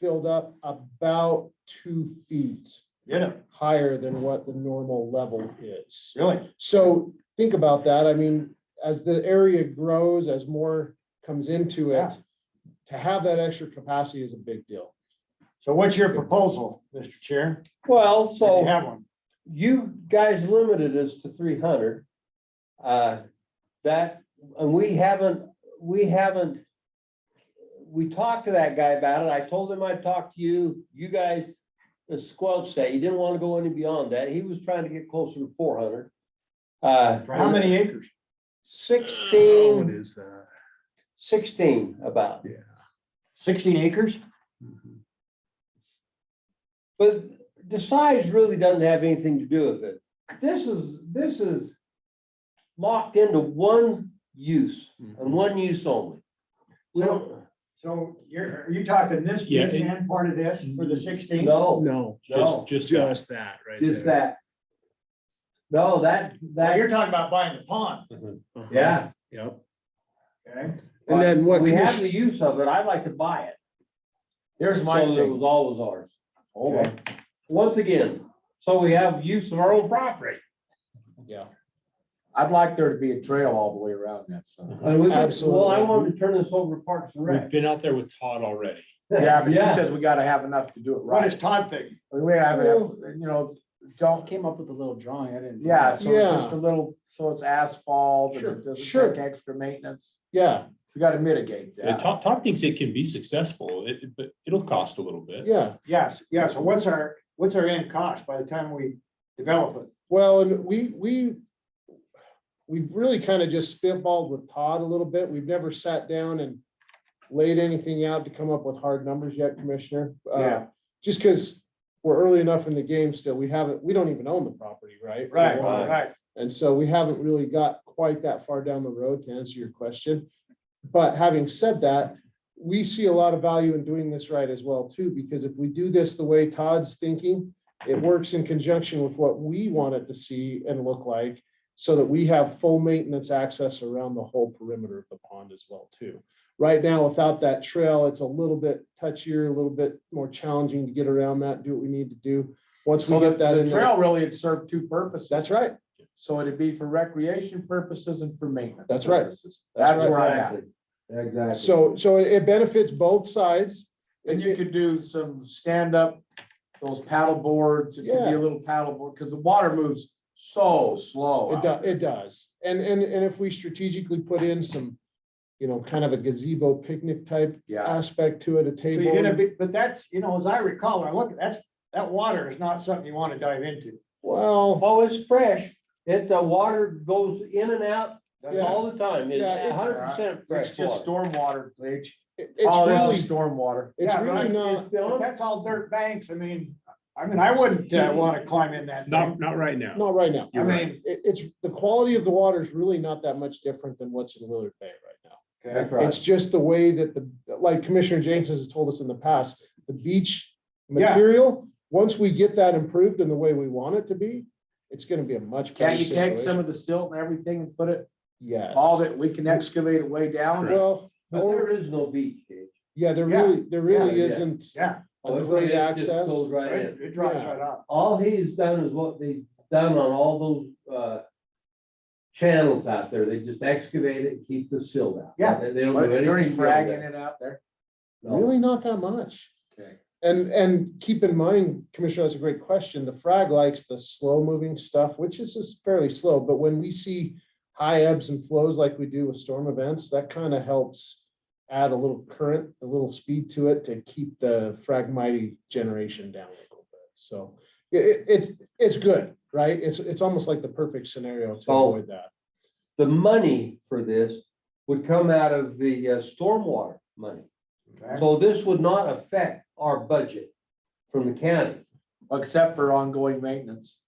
filled up about two feet Yeah, higher than what the normal level is. really. So think about that. I mean, as the area grows, as more comes into it, Yeah. to have that extra capacity is a big deal. So what's your proposal, Mr. Chair? Well, If you so have one. you guys limited us to three hundred. Uh, that, and we haven't, we haven't. We talked to that guy about it. I told him I'd talk to you. You guys, the squelch that, you didn't want to go any beyond that. He was trying to get closer to four hundred. Uh, For how many acres? What Sixteen, is that? sixteen about. Sixteen acres? But the size really doesn't have anything to do with it. This is, this is locked into one use and one use only. We don't, So you're, are you talking this Yeah, piece it- and part of this for the sixteen? no, No, No. Oh, just, just, just that right there. just that. No, that, Now, that, you're talking about buying the pond, Uh-huh. yeah. Yep. okay? And then what We have commission, the use of it. I'd like to buy it. Here's So my that It thing. was always ours. Okay. Once again, so we have use of our own property. Yeah. I'd like there to be a trail all the way around that, so. And we, could- well, I Absolutely. wanted to turn this over to Parks and We've Rec. been out there with Todd already. Yeah, but he says we gotta have enough to do it What is right. Todd thinking? We have, you know, don't, Came up with a little drawing, I didn't. yeah, so it's Yeah. just a little, so it's asphalt and Sure, it doesn't sure. take extra maintenance. Yeah, We gotta mitigate And that. Todd, Todd thinks it can be successful, it, it- but it'll cost a little bit. yeah. Yes, yeah, so what's our, what's our end cost by the time we develop it? Well, and we, we, we've really kind of just spitballed with Todd a little bit. We've never sat down and laid anything out to come up with hard numbers yet, Commissioner. Uh, Yeah. Just because we're early enough in the game still, we haven't, we don't even own the property, right? Right, right. And so we haven't really got quite that far down the road to answer your question. But having said that, we see a lot of value in doing this right as well too, because if we do this the way Todd's thinking, it works in conjunction with what we want it to see and look like so that we have full maintenance access around the whole perimeter of the pond as well too. Right now, without that trail, it's a little bit touchier, a little bit more challenging to get around that, do what we need to do. Once we So the, get that in the there, trail really had served two purposes. that's right. So it'd be for recreation purposes and for maintenance. That's right. purposes. That's That's where I'm at. Exactly. So, so it benefits both sides. And you could do some stand-up, those paddle boards, it could be Yeah. a little paddle board, because the water moves so slow. It out does, there. it does. And, and, and if we strategically put in some, you know, kind of a gazebo picnic type Yeah, aspect to it, a So you're table. gonna be, but that's, you know, as I recall, I look, that's, that water is not something you wanna dive into. Well, Oh, it's fresh. It, the water goes in and out That's all. all the time. It's Yeah, it's- hundred percent fresh it's just water. stormwater, Gage. it- All it's it really, is is stormwater. it's Yeah, really right. not, But That's all dirt banks. I mean, I mean, I wouldn't uh, wanna climb in that. Not, thing. not right now. not right now. I You're right. mean, It, it's, the quality of the water is really not that much different than what's in Willard Bay right now. okay, It's just the way that the, like Commissioner James has told us in the past, the beach Yeah. material, once we get that improved in the way we want it to be, it's gonna be a much better Can't you take some situation. of the silt and everything and put it, Yes. all that, we can excavate it way down? Well, oh, But there is no beach, Dave. yeah, there Yeah. really, there really Yeah. isn't yeah. a great It just access. goes right It in. it dries Yeah. right up. All he's done is what they've done on all those, uh, channels out there. They just excavate it, keep the silt out. Yeah. They they don't do Is there any anything. frag beyond in that. it out there? No. Really not that much. Okay. And, and keep in mind, Commissioner, that's a great question. The frag likes the slow moving stuff, which is just fairly slow, but when we see high ebbs and flows like we do with storm events, that kind of helps add a little current, a little speed to it to keep the fragmite generation down a little bit. So i- i- it's, it's good, right? It's, it's almost like the perfect scenario to Oh. avoid that. The money for this would come out of the uh, stormwater money. okay? So this would not affect our budget from the county. Except for ongoing maintenance.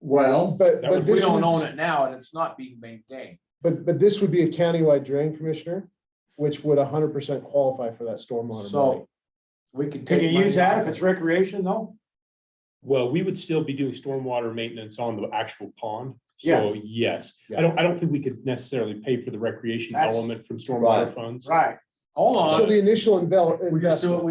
Well, But, That but was- We this don't is- own it now and it's not being maintained. But, but this would be a countywide drain commissioner, which would hundred percent qualify for that stormwater money. So we could Can take. you money use that off if it. it's recreation though? Well, we would still be doing stormwater maintenance on the actual pond. Yeah. So yes, I don't, I don't think we could necessarily pay for the recreation That's- element from stormwater Right. funds. Right. Hold So on, the initial envel- we just do investment. it